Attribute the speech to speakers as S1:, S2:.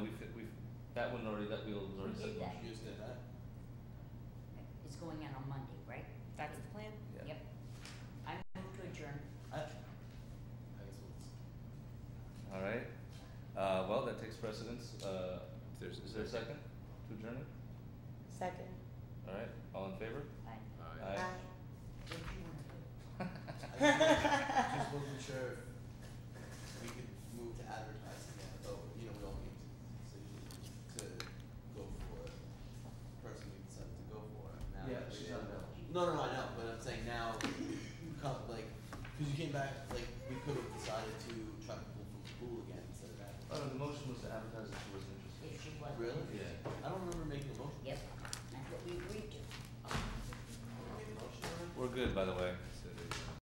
S1: That one already, that we already
S2: We
S1: said.
S2: did that.
S3: You just did that?
S2: It's going out on Monday, right?
S4: That's the plan?
S1: Yeah.
S2: Yep. I move to adjourn.
S3: I, I guess we'll.
S1: Alright, uh, well, that takes precedence, uh, is there a second to adjourn it?
S4: Second.
S1: Alright, all in favor?
S2: Aye.
S1: Aye.
S2: What do you wanna do?
S3: I Just wasn't sure if we could move to advertising yet, though, you know, we all need to, to go for it. Person we decided to go for it now.
S1: Yeah,
S3: that we
S1: she's
S3: didn't-
S1: unavailable.
S3: No, no, no, I know, but I'm saying now, come, like, cause you came back, like, we could have decided to try to pull from school again instead of that.
S1: Oh, no, the motion was to advertise if she wasn't interested.
S2: If she was.
S3: Really?
S1: Yeah.
S3: I don't remember making a motion.
S2: Yep, that's what we agreed to.
S3: I don't remember making a motion,
S1: We're good, by the way.